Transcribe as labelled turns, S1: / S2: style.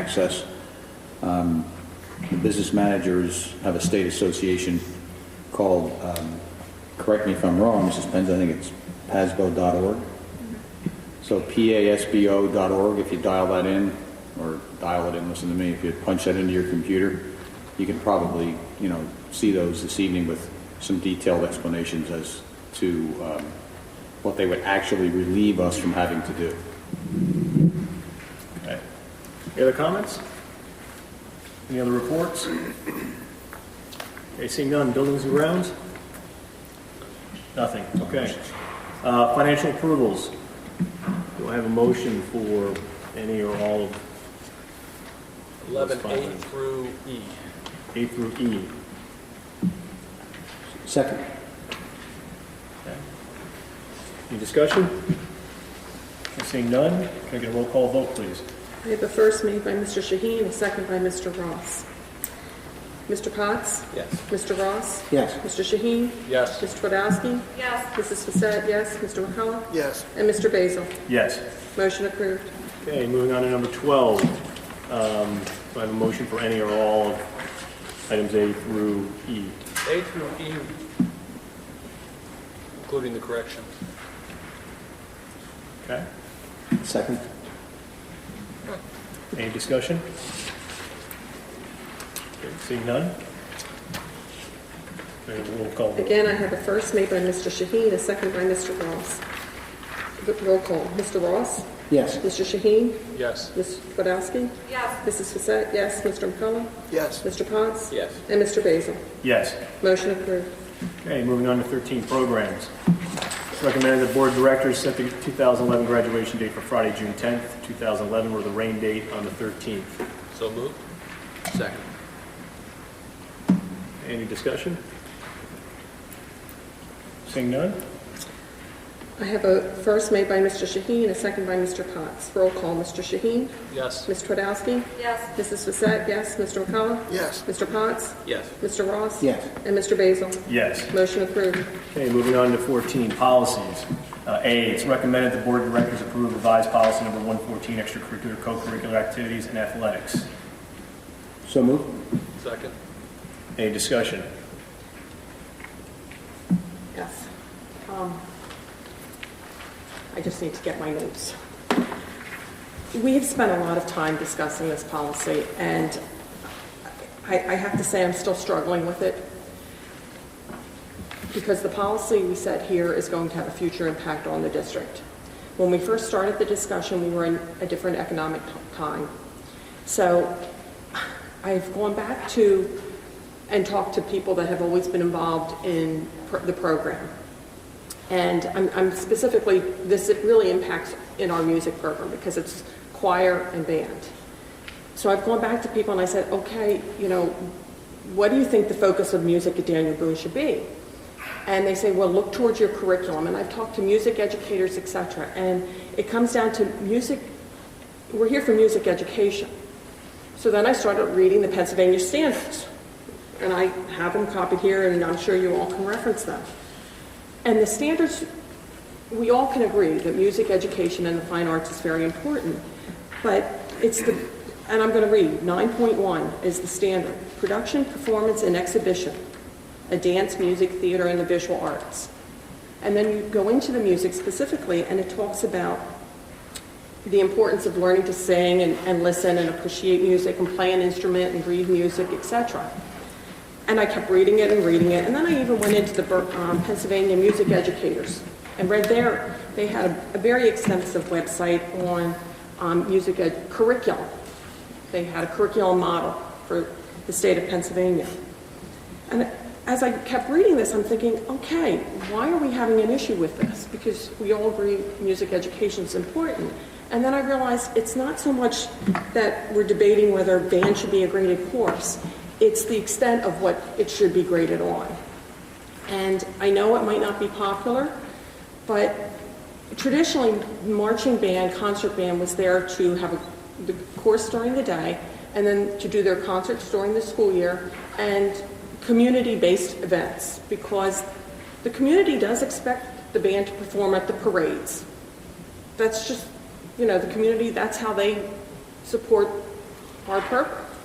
S1: access. Um, the Business managers have a state association called, um, correct me if I'm wrong, Mrs. Penz, I think it's pasbo.org. So pasbo.org, if you dial that in, or dial it in, listen to me, if you punch that into your computer, you can probably, you know, see those this evening with some detailed explanations as to um, what they would actually relieve us from having to do.
S2: Okay. Any other comments? Any other reports? Okay, seeing none, buildings and grounds? Nothing, okay. Uh, Financial approvals. Do I have a motion for any or all of
S3: 11A through E.
S2: A through E?
S1: Second.
S2: Any discussion? Seeing none, can I get a roll call vote, please?
S4: I have a first made by Mr. Shaheen, a second by Mr. Ross. Mr. Potts?
S3: Yes.
S4: Mr. Ross?
S1: Yes.
S4: Mr. Shaheen?
S3: Yes.
S4: Mr. Twodowski? Yes. Mrs. Fasette, yes. Mr. McCullough?
S3: Yes.
S4: And Mr. Basil?
S2: Yes.
S4: Motion approved.
S2: Okay, moving on to number 12. Um, Do I have a motion for any or all of items A through E?
S3: A through E, including the corrections.
S2: Okay?
S1: Second.
S2: Any discussion? Okay, Seeing none? Okay, Roll call. vote.
S4: Again, I have a first made by Mr. Shaheen, a second by Mr. Ross. R- Roll call. Mr. Ross?
S1: Yes.
S4: Mr. Shaheen?
S3: Yes.
S4: Mr. Twodowski? Yes. Mrs. Fasette, yes. Mr. McCullough?
S3: Yes.
S4: Mr. Potts?
S3: Yes.
S4: And Mr. Basil?
S2: Yes.
S4: Motion approved.
S2: Okay, moving on to 13, programs. It's recommended the board of directors set the 2011 graduation date for Friday, June 10th, 2011, or the rain date on the 13th.
S3: So moved. Second.
S2: Any discussion? Seeing none?
S4: I have a first made by Mr. Shaheen, a second by Mr. Potts. Roll call, Mr. Shaheen?
S3: Yes.
S4: Ms. Twardowski? Yes. Mrs. Fasette, yes. Mr. McCullough?
S3: Yes.
S4: Mr. Potts?
S3: Yes.
S4: Mr. Ross?
S1: Yes.
S4: And Mr. Basil?
S2: Yes.
S4: Motion approved.
S2: Okay, moving on to 14, policies. Uh, A, it's recommended the board of directors approve revised policy number 114, extracurricular, co-curricular activities and athletics.
S1: So moved.
S3: Second.
S2: Any discussion?
S4: Yes. Um, I just need to get my notes. We have spent a lot of time discussing this policy, and I, I have to say I'm still struggling with it. because the policy we set here is going to have a future impact on the district. When we first started the discussion, we were in a different economic t- time. So I've gone back to and talked to people that have always been involved in pr- the program. And I'm- I'm specifically, this it really impacts in our music program because it's choir and band. So I've gone back to people and I said, okay, you know, what do you think the focus of music at Daniel Boone should be? And they say, well, look towards your curriculum. And I've talked to music educators, et cetera. And it comes down to music, we're here for music education. So then I started reading the Pennsylvania standards. And I have them copied here, and I'm sure you all can reference them. And the standards, we all can agree that music education and the fine arts is very important, but it's the, and I'm going to read, 9.1 is the standard, production, performance, and exhibition, a dance, music, theater, and the visual arts. And then you go into the music specifically, and it talks about the importance of learning to sing and, and listen and appreciate music and play an instrument and read music, etc. And I kept reading it and reading it, and then I even went into the Ber- um, Pennsylvania Music Educators and read there. They had a, a very extensive website on um, music ed- curriculum. They had a curriculum model for the state of Pennsylvania. And as I kept reading this, I'm thinking, okay, why are we having an issue with this? Because we all agree music education is important. And then I realized it's not so much that we're debating whether band should be a graded course, it's the extent of what it should be graded on. And I know it might not be popular, but traditionally, marching band, concert band was there to have a, the course during the day, and then to do their concerts during the school year, and community-based events, because the community does expect the band to perform at the parades. That's just, you know, the community, that's how they support Harper.